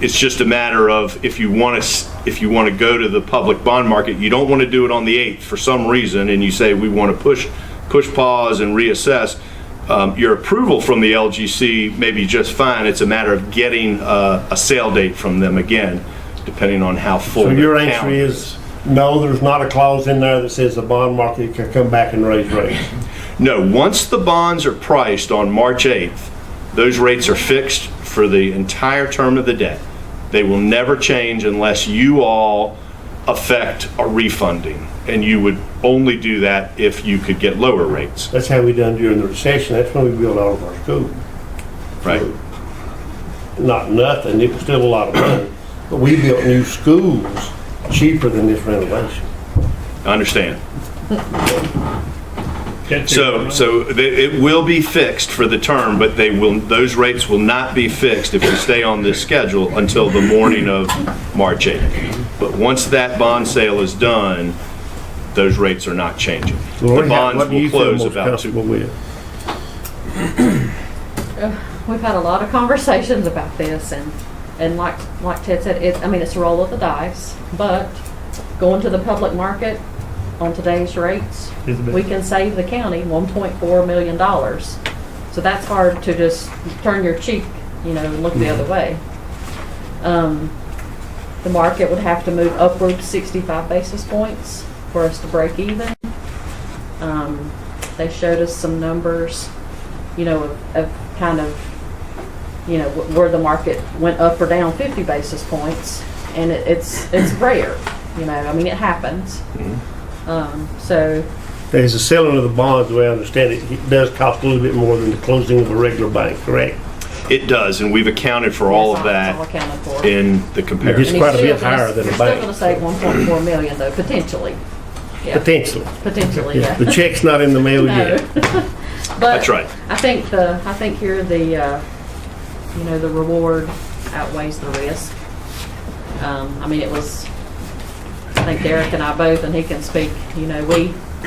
It's just a matter of if you want to, if you want to go to the public bond market, you don't want to do it on the 8th for some reason, and you say, we want to push, push pause and reassess, um, your approval from the LGC may be just fine. It's a matter of getting uh, a sale date from them again, depending on how full So your their answer calendar is. is, no, there's not a clause in there that says the bond market can come back and raise rates. No, once the bonds are priced on March 8th, those rates are fixed for the entire term of the debt. They will never change unless you all affect a refunding. And you would only do that if you could get lower rates, That's how we done during the recession, that's when we built all of our schools. right? Not nothing, it was still a lot of money, but we built new schools cheaper than this renovation. I understand. Can't take it So, from so they- it will be fixed for the term, but they will, those rates will not be fixed if we stay on this schedule until the morning of March 8th. But once that bond sale is done, those rates are not changing. The Lori, how- bonds what do will you feel close most about two. comfortable with? We've had a lot of conversations about this and, and like, like Ted said, it, I mean, it's a roll of the dice, but going to the public market on today's rates, Is it- we can save the county one point four million dollars. So that's hard to just turn your cheek, you know, and look the other way. Um, the market would have to move upward sixty-five basis points for us to break even. Um, they showed us some numbers, you know, of, of kind of, you know, wh- where the market went up or down 50 basis points, and it, it's it's rare, you know. I mean, it happens. Mm-hmm. Um, so There's a selling of the bonds, the way I understand it, it does cost a little bit more than the closing of a regular bank, correct? It does, and we've accounted for all of that that's all accounted for. in the And comparison. he's quite a still bit gonna- higher than a we're bank. Still going to save 1.4 million though, potentially. Yeah, Potentially. potentially, yeah. The check's not in the mail No. yet. But That's right. I think the, I think here the, uh, you know, the reward outweighs the risk. Um, I mean, it was, I think Derek and I both, and he can speak, you know, we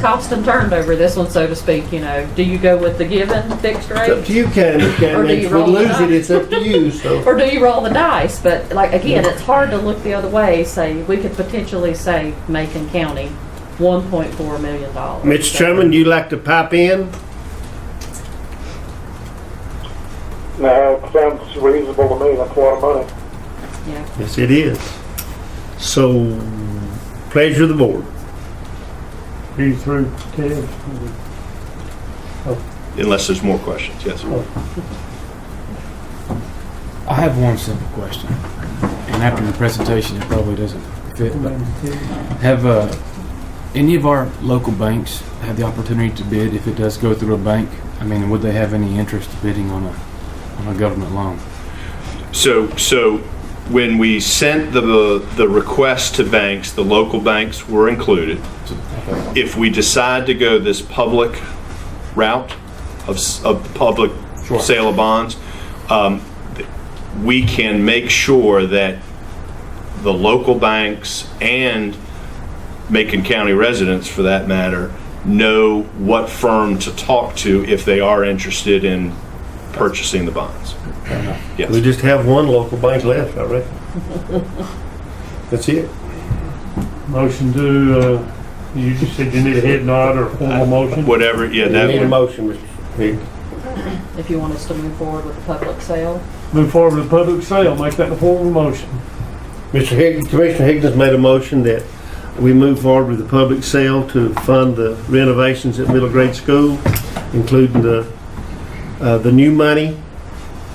tossed and turned over this one, so to speak, you know. Do you go with the given fixed rate? It's up to you, Candace, Or do Candace. you If we roll it lose up? it, it's up to you, so. Or do you roll the dice? But like, again, it's hard to look the other way, say, we could potentially save Macon County one point four million dollars. Mr. Chairman, do you like to pipe in? No, it sounds reasonable to me. That's a lot of money. Yeah. Yes, it is. So, pleasure of the board. Be through Ted. Unless there's more questions, yes. I have one simple question, and after the presentation, it probably doesn't fit, but have, uh, any of our local banks have the opportunity to bid if it does go through a bank? I mean, would they have any interest bidding on a, on a government loan? So, so when we sent the, the request to banks, the local banks were included. If we decide to go this public route of, s- of public sale of bonds, um, th- we can make sure that the local banks and Macon County residents, for that matter, know what firm to talk to if they are interested in purchasing the bonds. Yes. We just have one local bank left, I reckon. That's it. Motion to, uh, you just said you need a head nod or a formal motion? Whatever, yeah, We that need a would, motion, Mr. Hicks. If you want us to move forward with the public sale. Move forward with public sale, make that a formal motion. Mr. Higgins, Commissioner Higgins made a motion that we move forward with the public sale to fund the renovations at middle grade school, including the, uh, the new money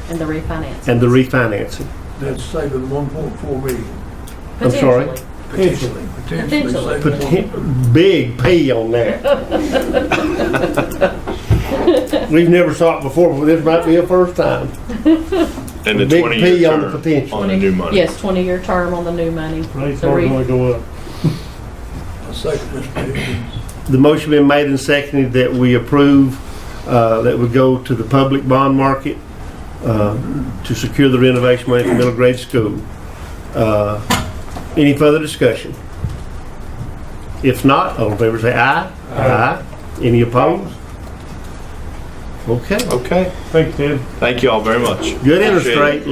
And the refinance. and the refinancing. That's saving one point four million, I'm sorry? Potentially. potentially, potentially Potentially. saving one- Poten- Big P on that. We've never saw it before, but this might be a first time. and the Big twenty-year P on the term potential. on the new money. Yes, twenty-year term on the new money. Rates The are re- gonna go up. I second Mr. Higgins. The motion been made and seconded that we approve, uh, that we go to the public bond market uh, to secure the renovation money for middle grade school. Uh, Any further discussion? If not, all in favor say aye. Aye. Any opposed? Okay, Okay, Thank you, Ted. thank you all very much. good interest Appreciate it. rate,